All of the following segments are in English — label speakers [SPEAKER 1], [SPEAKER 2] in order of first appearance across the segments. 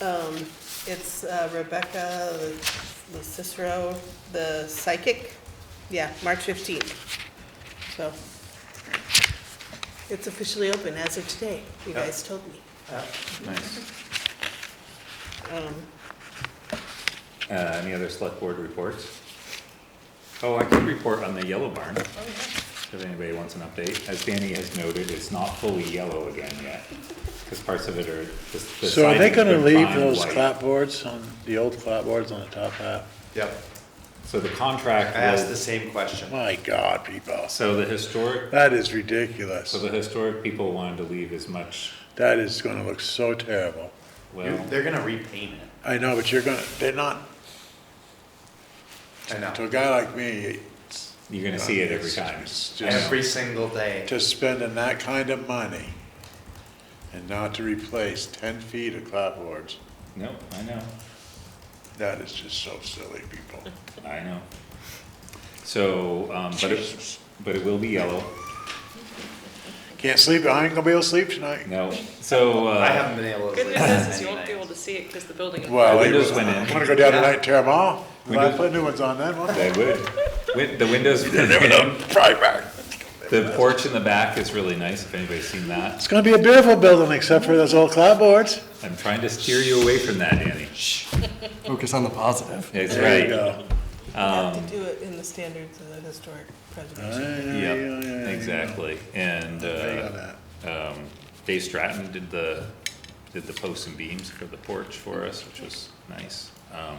[SPEAKER 1] Um, It's uh, Rebecca the Cicero, the psychic, yeah, March 15th. So it's officially open as of today, you
[SPEAKER 2] Yeah.
[SPEAKER 1] guys told me.
[SPEAKER 2] Nice.
[SPEAKER 1] Um,
[SPEAKER 2] Uh, Any other select board reports? Oh, I could report on the yellow barn, if anybody wants an update. As Danny has noted, it's not fully yellow again yet, because parts of it are just. the
[SPEAKER 3] So are they
[SPEAKER 2] siding's
[SPEAKER 3] gonna
[SPEAKER 2] been
[SPEAKER 3] leave
[SPEAKER 2] fine
[SPEAKER 3] those
[SPEAKER 2] white.
[SPEAKER 3] clapboards on, the old clapboards on the top half?
[SPEAKER 4] Yep,
[SPEAKER 2] So the
[SPEAKER 4] I
[SPEAKER 2] contract
[SPEAKER 4] asked the
[SPEAKER 2] will,
[SPEAKER 4] same question.
[SPEAKER 3] My God, people,
[SPEAKER 2] so the historic,
[SPEAKER 3] that is
[SPEAKER 2] so
[SPEAKER 3] ridiculous.
[SPEAKER 2] the historic people wanted to leave as much,
[SPEAKER 3] That is gonna look so terrible.
[SPEAKER 2] well,
[SPEAKER 4] They're gonna repaint it.
[SPEAKER 3] I know, but you're gonna, they're not,
[SPEAKER 4] I know.
[SPEAKER 3] to a guy like me, it's-
[SPEAKER 2] you're gonna see it every time.
[SPEAKER 3] It's
[SPEAKER 2] I know.
[SPEAKER 3] just-
[SPEAKER 4] Every single day.
[SPEAKER 3] to spending that kind of money and not to replace ten feet of clapboards,
[SPEAKER 2] Nope, I know.
[SPEAKER 3] that is just so silly, people.
[SPEAKER 2] I know. So, um, but it,
[SPEAKER 3] Jesus.
[SPEAKER 2] but it will be yellow.
[SPEAKER 3] Can't sleep, I ain't gonna be able to sleep tonight.
[SPEAKER 2] No, so, uh.
[SPEAKER 4] I haven't been able to.
[SPEAKER 5] Good
[SPEAKER 4] sleep
[SPEAKER 5] news is, is you
[SPEAKER 4] many
[SPEAKER 5] won't be able
[SPEAKER 4] nights.
[SPEAKER 5] to see it because the building is.
[SPEAKER 3] Well,
[SPEAKER 2] The
[SPEAKER 3] I-
[SPEAKER 2] windows went in.
[SPEAKER 3] I'm gonna go down tonight and tear them off. Well, I
[SPEAKER 2] Windows-
[SPEAKER 3] put new ones on then, won't I?
[SPEAKER 2] They would. Win- The windows, the porch in the back is really nice, if anybody's seen that.
[SPEAKER 3] It's gonna be a beautiful building, except for those old clapboards.
[SPEAKER 2] I'm trying to steer you away from that, Danny.
[SPEAKER 6] Focus on the positive.
[SPEAKER 2] That's
[SPEAKER 3] There you
[SPEAKER 2] right.
[SPEAKER 3] go.
[SPEAKER 1] You have
[SPEAKER 2] Um,
[SPEAKER 1] to do it in the standards of the historic preservation.
[SPEAKER 2] Yep, exactly. And,
[SPEAKER 3] Hang
[SPEAKER 2] uh,
[SPEAKER 3] on that.
[SPEAKER 2] um, Dave Stratton did the, did the posts and beams for the porch for us, which was nice. Um,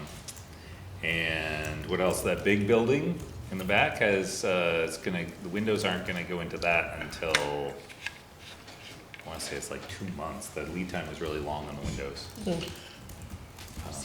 [SPEAKER 2] and what else, that big building in the back has, uh, it's gonna, the windows aren't gonna go into that until, I wanna say it's like two months, the lead time is really long on the windows.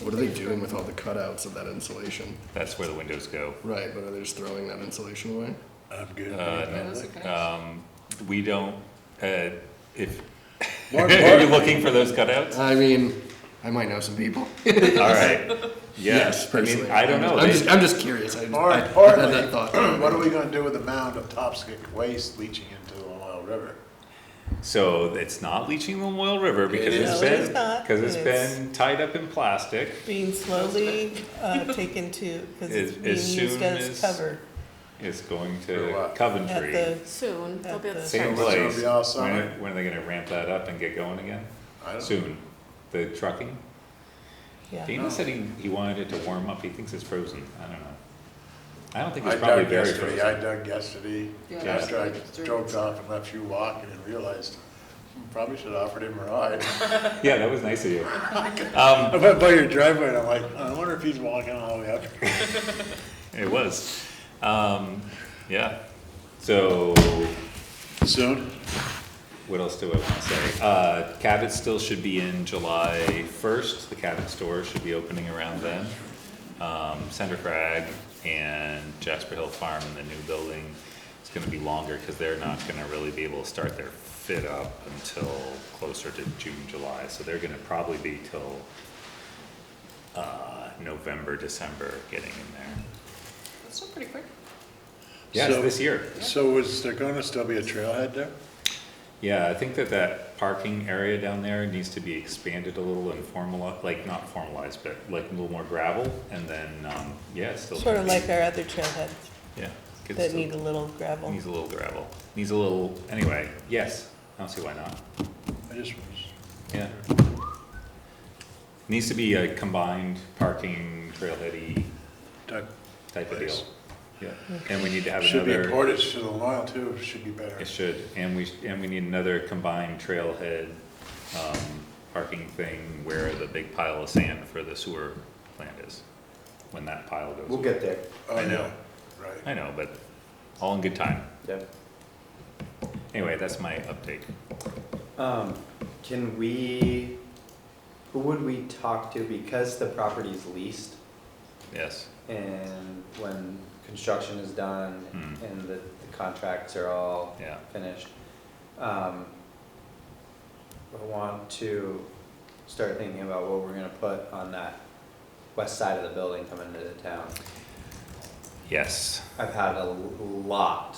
[SPEAKER 6] What are they doing with all the cutouts of that insulation?
[SPEAKER 2] That's where the windows go.
[SPEAKER 6] Right, but are they just throwing that insulation away?
[SPEAKER 3] I'm good.
[SPEAKER 2] Um, we don't, uh, if,
[SPEAKER 3] Mark,
[SPEAKER 2] are you
[SPEAKER 3] Mark,
[SPEAKER 2] looking for those cutouts?
[SPEAKER 6] I mean, I might know some people.
[SPEAKER 2] All right, yes, I mean,
[SPEAKER 6] personally.
[SPEAKER 2] I don't know.
[SPEAKER 6] I'm
[SPEAKER 2] They-
[SPEAKER 6] just, I'm just curious. I, just- I I
[SPEAKER 3] Mark,
[SPEAKER 6] had
[SPEAKER 3] Hartley,
[SPEAKER 6] that thought.
[SPEAKER 3] what are we gonna do with the mound of topsoil waste leaching into the Ohio River?
[SPEAKER 2] So it's not leaching the Moyle River because
[SPEAKER 6] It
[SPEAKER 2] it's
[SPEAKER 1] is. No,
[SPEAKER 2] been,
[SPEAKER 1] it's not.
[SPEAKER 2] because it's
[SPEAKER 1] And it's-
[SPEAKER 2] been tied up in plastic.
[SPEAKER 1] Being slowly uh, taken to, because it's
[SPEAKER 2] As-
[SPEAKER 1] being
[SPEAKER 2] as
[SPEAKER 1] used
[SPEAKER 2] soon
[SPEAKER 1] as
[SPEAKER 2] as-
[SPEAKER 1] cover
[SPEAKER 2] It's going
[SPEAKER 3] For
[SPEAKER 2] to
[SPEAKER 3] what?
[SPEAKER 1] at
[SPEAKER 2] Coventry.
[SPEAKER 1] the,
[SPEAKER 5] Soon,
[SPEAKER 1] they'll be able to-
[SPEAKER 2] Same
[SPEAKER 3] So it's gonna
[SPEAKER 2] place.
[SPEAKER 3] be all
[SPEAKER 2] When
[SPEAKER 3] summer?
[SPEAKER 2] are, when are they gonna ramp that up and get going again?
[SPEAKER 3] I don't-
[SPEAKER 2] Soon. The trucking?
[SPEAKER 1] yeah.
[SPEAKER 2] Dana said he, he wanted it to warm up. He thinks it's frozen. I don't know. I don't think
[SPEAKER 3] I
[SPEAKER 2] it's probably
[SPEAKER 3] dug
[SPEAKER 2] very
[SPEAKER 3] yesterday,
[SPEAKER 2] frozen.
[SPEAKER 3] I dug yesterday,
[SPEAKER 5] Yeah, that's
[SPEAKER 3] after I
[SPEAKER 5] like three
[SPEAKER 3] drove off and left you walking and realized, hmm, probably should have offered him a ride.
[SPEAKER 2] Yeah, that was nice of you. Um,
[SPEAKER 3] I went by your driveway and I'm like, I wonder if he's walking all the way up.
[SPEAKER 2] it was. Um, yeah. So
[SPEAKER 3] Soon?
[SPEAKER 2] What else do I wanna say? Uh, Cabot still should be in July first, the Cabot store should be opening around then. Um, Center Crag and Jasper Hill Farm in the new building, it's gonna be longer, cause they're not gonna really be able to start their fit up until closer to June, July, so they're gonna probably be till uh, November, December getting in there.
[SPEAKER 5] That's still pretty quick.
[SPEAKER 2] Yeah, it's
[SPEAKER 3] So-
[SPEAKER 2] this year.
[SPEAKER 3] So is there gonna still be a trailhead there?
[SPEAKER 2] Yeah, I think that that parking area down there needs to be expanded a little and formal, like, not formalized, but like a little more gravel, and then, um, yeah, it's still.
[SPEAKER 1] Sort of like our other trailheads
[SPEAKER 2] Yeah. could
[SPEAKER 1] that
[SPEAKER 2] still-
[SPEAKER 1] need a little gravel.
[SPEAKER 2] Needs a little gravel, needs a little, anyway, yes, I don't see why not,
[SPEAKER 3] I just,
[SPEAKER 2] yeah. Needs to be a combined parking trailheady
[SPEAKER 3] that
[SPEAKER 2] type of deal,
[SPEAKER 3] Place.
[SPEAKER 2] yeah, and we need to have another.
[SPEAKER 3] should be a portage to the Lyle too, should be better.
[SPEAKER 2] It should, and we, and we need another combined trailhead, um, parking thing where the big pile of sand for the sewer plant is, when that pile goes.
[SPEAKER 4] We'll
[SPEAKER 2] away.
[SPEAKER 4] get there.
[SPEAKER 3] Oh,
[SPEAKER 2] I know.
[SPEAKER 3] yeah, Right.
[SPEAKER 2] I know, but all in good time.
[SPEAKER 4] Yep.
[SPEAKER 2] Anyway, that's my update.
[SPEAKER 4] Um, can we, who would we talk to, because the property's leased,
[SPEAKER 2] Yes,
[SPEAKER 4] and when construction is done,
[SPEAKER 2] Hmm.
[SPEAKER 4] and the, the contracts are all
[SPEAKER 2] yeah.
[SPEAKER 4] finished, um, I want to start thinking about what we're gonna put on that west side of the building coming into the town.
[SPEAKER 2] Yes,
[SPEAKER 4] I've had a lot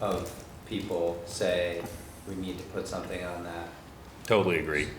[SPEAKER 4] of people say, we need to put something on that.
[SPEAKER 2] totally agree.